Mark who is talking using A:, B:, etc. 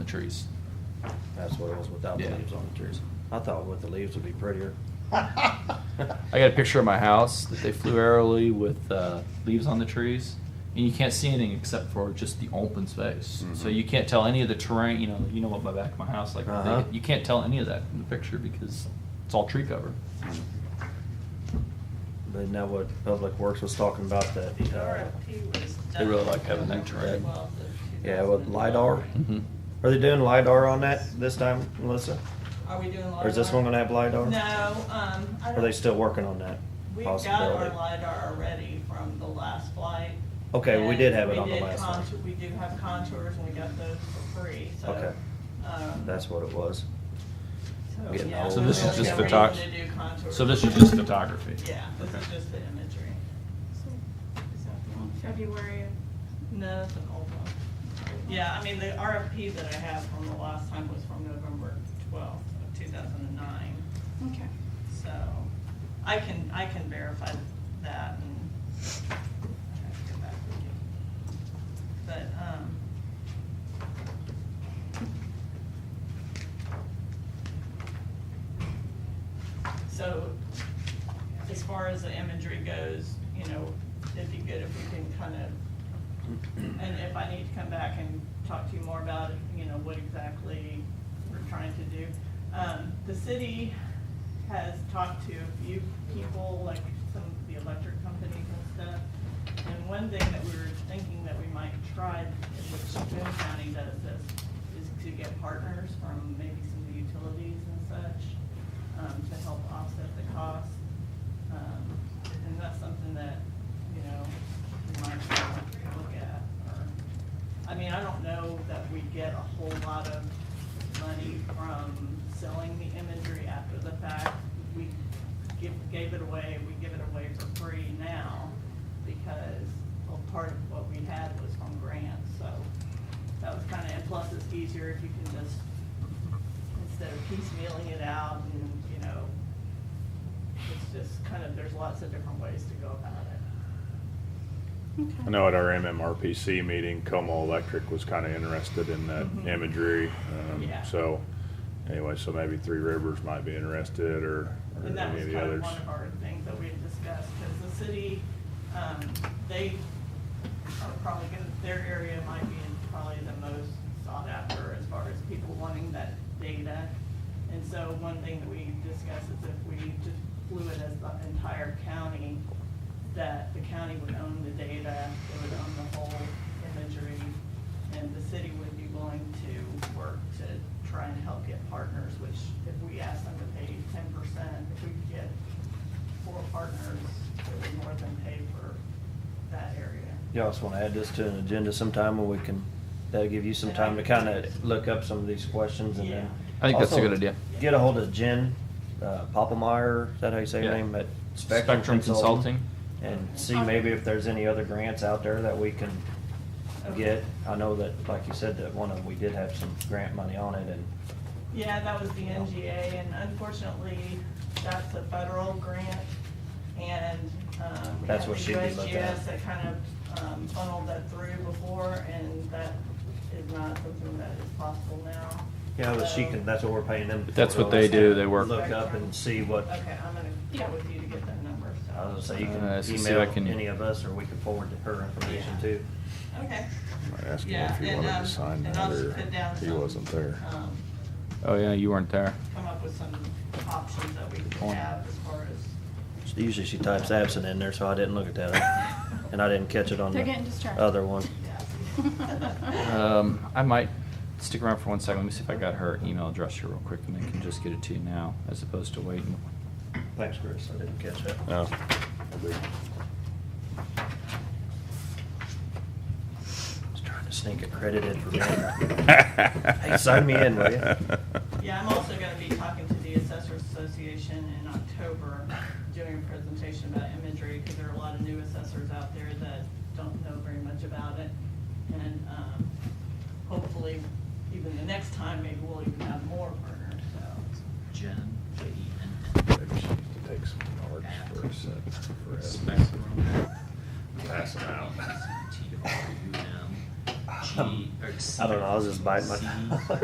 A: trees.
B: That's what it was without the
A: Yeah.
B: leaves on the trees. I thought with the leaves would be prettier.
A: I got a picture of my house that they flew aerially with uh, leaves on the trees, and you can't see anything except for just the open space. So
C: Mhm.
A: you can't tell any of the terrain. You know, you know what my back of my house like.
B: Uh-huh.
A: you can't tell any of that in the picture because it's all tree cover.
B: But now what Public Works was talking about that,
D: The
B: uh,
D: RFP was
A: They really
D: done
A: like having that
D: November
A: terrain.
D: 12th of
B: Yeah, with
D: 2012.
B: LiDAR.
A: Mm-hmm.
B: are they doing LiDAR on that this time, Melissa?
D: Are we doing LiDAR?
B: Or is this one gonna have LiDAR?
D: No, um, I
B: Are they
D: don't,
B: still working on that
D: we've got our
B: possibility?
D: LiDAR already from the last flight.
B: Okay, we
D: and
B: did have it
D: we
B: on the
D: did
B: last one.
D: contour- We do have contours and we got those for free, so.
B: Okay.
D: um,
B: That's what it was.
D: so,
B: getting
D: yeah,
B: old.
A: So this is
D: there's
A: just
D: no
A: photog-
D: reason to do contours.
A: So this is just photography.
D: Yeah, this is just the imagery.
E: So, is that the one, February?
D: No, it's an old one. Yeah, I mean, the RFP that I have from the last time was from November twelfth of two thousand and nine.
E: Okay.
D: So I can, I can verify that and I have to go back and get- But, um, so as far as the imagery goes, you know, it'd be good if we can kind of, and if I need to come back and talk to you more about, you know, what exactly we're trying to do. Um, the city has talked to a few people, like some of the electric companies and stuff. And one thing that we were thinking that we might try, which Boone County does this, is to get partners from maybe some of the utilities and such um, to help offset the cost. Um, And that's something that, you know, we might look at. or- I mean, I don't know that we get a whole lot of money from selling the imagery after the fact. We give, gave it away, we give it away for free now because, well, part of what we had was from grants, so that was kind of, and plus it's easier if you can just instead of piecemealing it out and, you know, it's just kind of, there's lots of different ways to go about it.
E: Okay.
C: I know at our MMRPC meeting, Como Electric was kind of interested in that
D: Mhm.
C: imagery. um,
D: Yeah.
C: So, anyway, so maybe Three Rivers might be interested or or
D: And that
C: any
D: was
C: of the
D: kind of
C: others.
D: one of our things that we had discussed, because the city, um, they are probably gonna, their area might be probably the most sought after as far as people wanting that data. And so one thing that we discussed is if we just flew it as the entire county, that the county would own the data, it would own the whole imagery, and the city would be willing to work to try and help get partners, which if we asked them to pay ten percent, if we could get four partners, it would more than pay for that area.
B: Y'all just wanna add this to an agenda sometime when we can, that'll give you some time to kinda look up some of these questions and then.
A: I think that's a
B: Also,
A: good idea.
B: Get a hold of Jen, uh, Popplemeyer, is that how you say her
A: Yeah.
B: name, at
A: Spectrum
B: Spectrum Consulting?
A: Consulting.
B: And see maybe if there's any other grants out there that we can get. I know that, like you said, that one of them, we did have some grant money on it and,
D: Yeah, that was the NGA, and unfortunately, that's a federal grant, and, um. we
B: That's
D: had
B: what
D: the
B: she did look at.
D: USGS that kind of, um, funneled that through before, and that is not something that is possible now.
B: yeah, but she
D: So-
B: can, that's what we're paying them.
A: But that's
B: for,
A: what they
B: though,
A: do,
B: is
A: they work-
B: Look up and see what, I
D: Okay, I'm gonna
E: Yeah.
D: get with you to get that number, so.
B: was gonna say, you
A: Uh, let's
B: can
A: see if I can-
B: email any of us or we can forward to her information
D: Yeah.
B: too.
D: Okay.
C: Might ask him
D: Yeah,
C: if he
D: and,
C: wanted
D: um,
C: to sign
D: and
C: that
D: I'll just
C: or
D: put down
C: he
D: some,
C: wasn't there.
D: um,
A: Oh yeah, you weren't there.
D: Come up with some options that we could
A: point.
D: have as far as,
B: Usually she types absent in there, so I didn't look at that. And I didn't catch it on
E: They're getting
B: the
E: distracted.
B: other one.
D: yeah.
A: Um, I might stick around for one second. Let me see if I got her email address here real quick, and I can just get it to you now, as opposed to waiting.
B: Thanks, Chris, I didn't catch that.
C: No. Oh.
B: Just trying to sneak a credit in for me. Hey, sign me in, will ya?
D: Yeah, I'm also gonna be talking to the Assessors Association in October, doing a presentation about imagery, because there are a lot of new assessors out there that don't know very much about it. And, um, hopefully, even the next time, maybe we'll even have more partners, so.
A: Jen,
C: Maybe she needs to take some cards for a sec. for us. Pass them out.
B: I don't know, I was just biting my